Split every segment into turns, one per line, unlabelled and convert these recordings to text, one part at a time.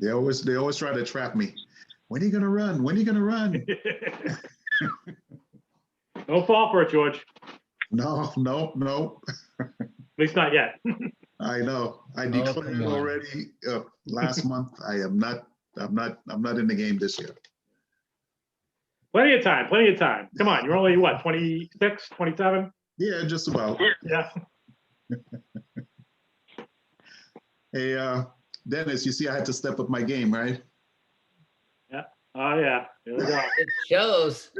They always, they always try to trap me. When are you gonna run? When are you gonna run?
Don't fall for it, George. At
No, no, no.
least not yet.
I know. I
Oh,
declared
come on.
already, uh, last month. I am not, I'm not, I'm not in the game this year.
Plenty of time, plenty of time. Come on, you're only, what, 26, 27?
Yeah, just about.
Yeah.
Hey, uh, Dennis, you see I had to step up my game, right?
Oh, yeah. There we go.
It shows.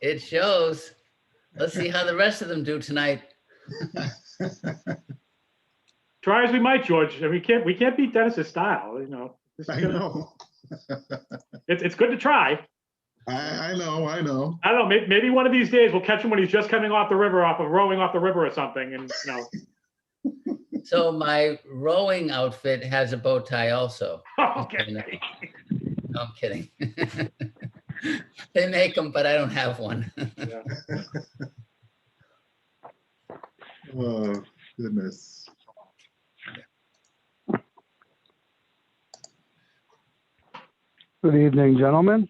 It shows. Let's see how the rest of them do tonight.
Try as we might, George. and we can't, we can't beat Dennis's style, you know. This is
I
gonna-
know.
It's, it's good to try.
I, I know, I know.
I don't know, maybe, maybe one of these days we'll catch him when he's just coming off the river, off of rowing off the river or something and, you know.
So my rowing outfit has a bow tie also.
Okay.
No, I'm kidding. They make them, but I don't have one.
Oh, goodness.
Good evening, gentlemen.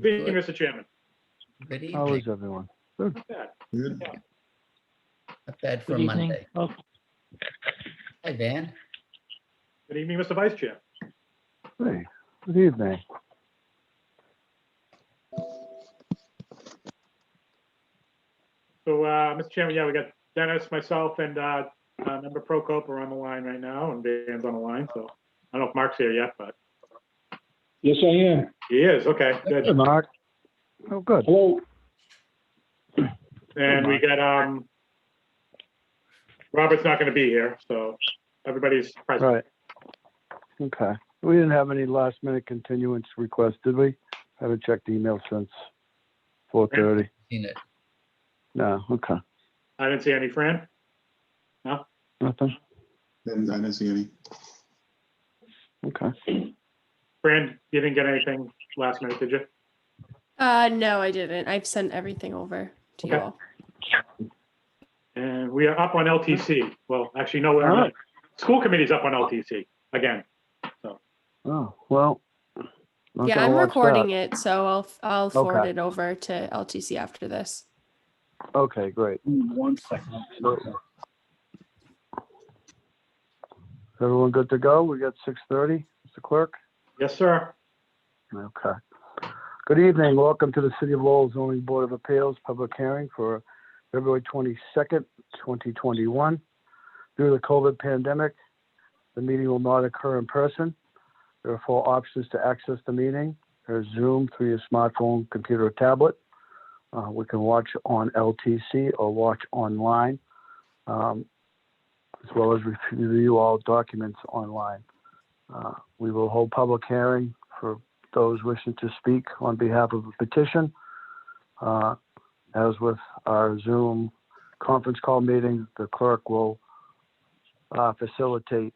Being
Good
Mr. Chairman.
good
How is
evening.
everyone?
Good.
Not bad for
Good evening.
Monday.
Oh,
Hi, Van.
Good evening, Mr. Vice Chair.
Hey, good evening.
So, uh, Mr. Chairman, yeah, we got Dennis, myself, and uh, uh, Member Prokop are on the line right now, and Dan's on the line, so I don't know if Mark's here yet, but
Yes, I am.
he is, okay,
Hey,
good.
Mark. Oh, good.
Hello.
And we got, um, Robert's not gonna be here, so everybody's present.
Right. Okay. We didn't have any last minute continuance requests, did we? Haven't checked email since four thirty.
Seen it.
No, okay.
I didn't see any Fran.
Nothing.
Didn't- I didn't see any.
Okay.
Fran, you didn't get anything last minute, did you?
Uh, no, I didn't. I've sent everything over to you
Okay.
all.
And we are up on LTC. Well, actually, no, we're
All
not.
right.
School committee's up on LTC again.
Oh, well. not
Yeah,
gonna
I'm
watch
recording it, so I'll I'll forward
Okay.
it over to LTC after this.
that. Okay, great.
One second.
Everyone good to go? We got six thirty, Mr. Clerk?
Yes, sir.
Okay. Good evening. Welcome to the City of Lowell Zoning Board of Appeals Public Hearing for February 22nd, 2021. Due to the COVID pandemic, the meeting will not occur in person. There are four options to access the meeting. There's Zoom through your smartphone, computer, or tablet. Uh, We can watch on LTC or watch online, um, as well as review all documents online. Uh, We will hold public hearing for those wishing to speak on behalf of a petition. Uh, As with our Zoom conference call meeting, the clerk will uh, facilitate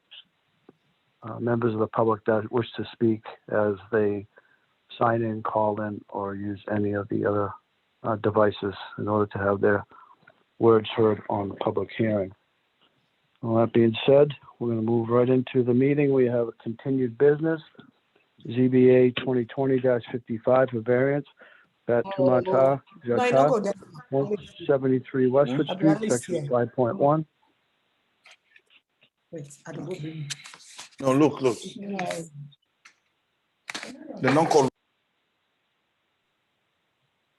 uh, members of the public that wish to speak as they sign in, call in, or use any of the other uh, devices in order to have their words heard on the public hearing. All that being said, we're going to move right into the meeting. We have continued business. ZBA 2020-55 for variance. That Tumata
No, I don't go there.
173 Westwood
I'd rather
Street,
see
section
it.
5.1.
Wait, I don't go there.
No, look, look, the non-call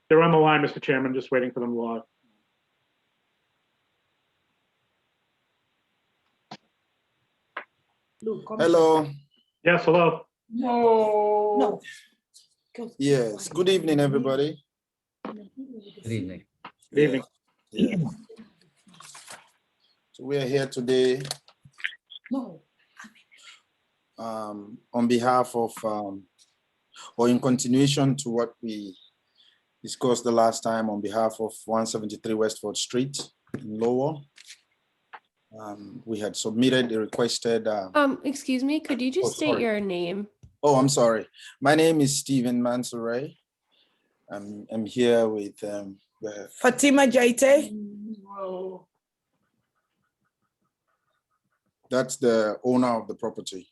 They're on the line, Mr. Chairman, just waiting for them to log.
Look, come-
Hello,
Yes, hello.
No.
yes, good evening, everybody.
Good evening.
Good evening.
Yeah. So we are here today
No.
um, on behalf of, um, or in continuation to what we discussed the last time on behalf of 173 Westford Street in Lowell. Um, We had submitted a requested, uh,
Um, excuse me, could you just state
sorry.
your name?
oh, I'm sorry. My name is Stephen Mansoray. I'm, I'm here with um, the
Fatima Jaite,
That's the owner of the property.